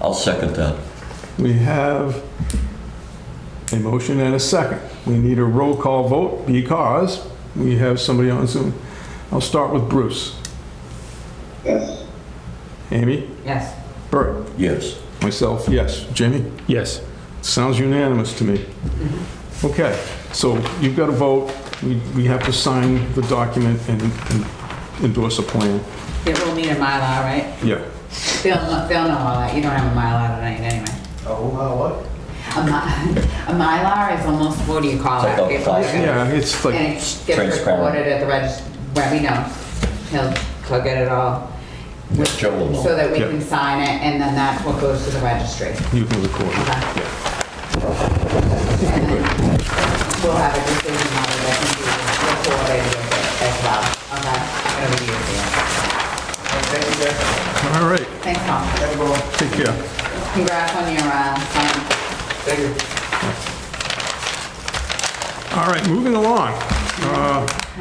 I'll second that. We have a motion and a second. We need a roll call vote because we have somebody on Zoom. I'll start with Bruce. Yes. Amy? Yes. Bert? Yes. Myself, yes. Jamie? Yes. Sounds unanimous to me. Okay, so you've got to vote. We we have to sign the document and and endorse a plan. Yeah, we'll need a Mylar, right? Yeah. They'll, kn- they'll know all that. You don't have a Mylar tonight anyway. Oh, what? A mi- a Mylar is almost, what do you call It's it? like a It's like file. a- Yeah, it's And like, it gets Transparent. recorded at the register, well, we know. He'll, he'll get it all. Yeah, Joe will know. So that we Yeah. can sign it and then that's what goes to the registry. you can record it. Okay. And then We'll have a decision on it that can be recorded with it as well. Okay, whatever you do. Thank you, guys. All right, Thanks, Tom. Have a good one. take care. Congrats on your, uh, sign. Thank you. All right, moving along. Uh, Can I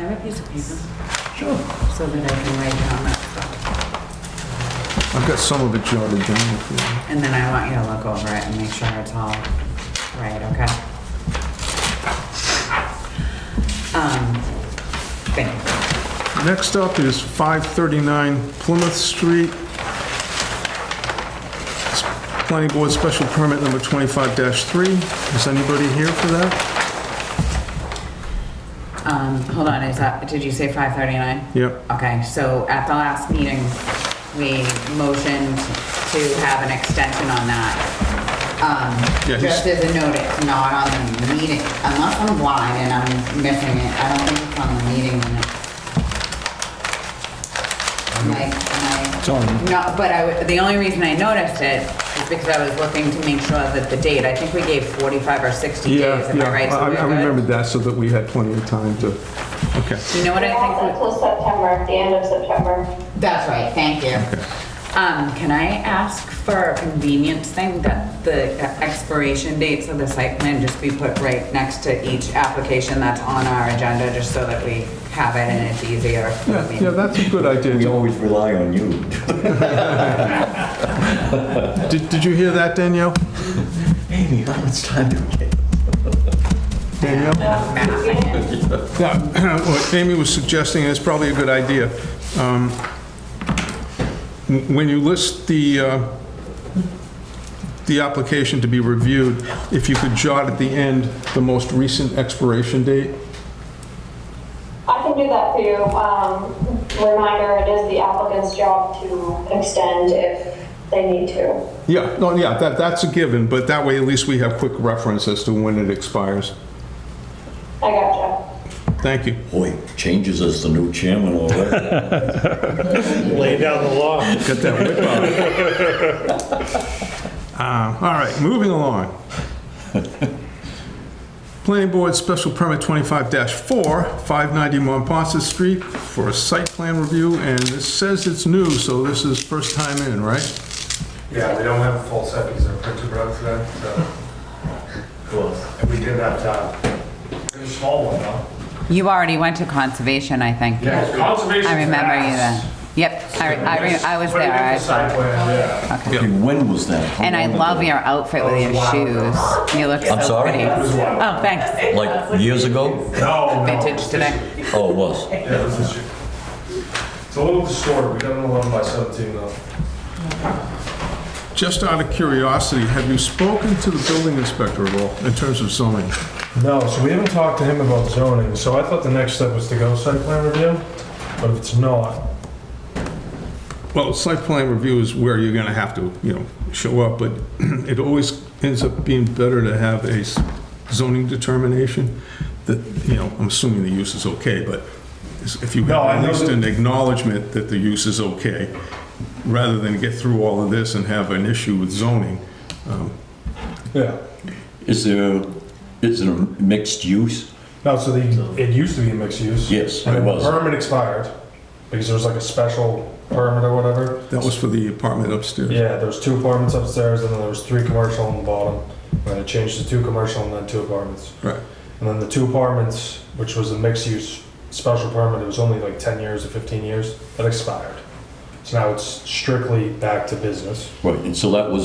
have a piece of paper? Sure. So that I can write down that stuff. I've got some of it jotted down. if you want. And then I want you to look over it and make sure it's all right, okay? Um, thank you. Next up is 539 Plymouth Street. Planning Board Special Permit Number 25-3. Is anybody here for that? Um, hold on, is that, did you say five thirty-nine? Yep. Okay, so at the last meeting, we motioned to have an extension on that. Um, Yeah, he's- Just as a note, it's not on the meeting, unless I'm blind and I'm missing it, I don't think it's on the meeting minutes. Like, my- No, but I, would- the only reason I noticed it is because I was looking to make sure that the date, I think we gave 45 or 60 days, am I right? So I we're I good? remembered that so that we had plenty of time to, okay. You know what I think? we- Yeah, Until September, the end of September. That's right, thank you. Um, can I ask for a convenience thing that the expiration dates of the site plan just be put right next to each application that's on our agenda, just so that we have it and it's easier? for the Yeah, yeah, meeting? that's a good We idea. always rely on you. Did Did you hear that, Danielle? Amy, it's time to get. Danielle? Yeah, what Amy was suggesting is probably a good idea. Um, When you list the, uh, the application to be reviewed, if you could jot at the end the most recent expiration date, I can do that for you. Um, Reminder, it is the applicant's job to extend if they need to. yeah, no, yeah, that, that's a given, but that way at least we have quick reference as to when it expires. I gotcha. Thank you. Boy, changes as the new chairman already. Lay down the law. Got that whip out. Uh, All right, moving along. Planning Board Special Permit 25-4, 590 Monpont Street for a site plan review, and it says it's new, so this is first time in, right? Yeah, we don't have a full set because our printer broke today, so. Cool. And we did have time. There's a small one, though. You already went to conservation, I think. Conservation. I remember you then. Yep, I, I, re- I was there. I saw. yeah. Okay, When was that? How And I long love ago? your outfit with your shoes. You look I'm so sorry? pretty. It was wild. Oh, thanks. Like years ago? No, no. Vintage today. Oh, it was. Yeah, this is, it's a little distorted. We got an 11 by 17 though. Just out of curiosity, have you spoken to the building inspector at all in terms of zoning? No, so we haven't talked to him about zoning, so I thought the next step was to go site plan review, but if it's not, Well, site plan review is where you're gonna have to, you know, show up, but it always ends up being better to have a zoning determination that, you know, I'm assuming the use is okay, but if you No, have I at know least that- an acknowledgement that the use is okay, rather than get through all of this and have an issue with zoning. yeah. Is there, is there mixed use? No, so the, it used to be a mixed use. Yes, And it then was. the permit expired, because there was like a special permit or whatever. That was for the apartment upstairs. Yeah, there was two apartments upstairs, and then there was three commercial on the bottom. And it changed to two commercial and then two apartments. Right. And then the two apartments, which was a mixed-use special permit, it was only like 10 years or 15 years, that expired. So now it's strictly back to business. Right, and so that was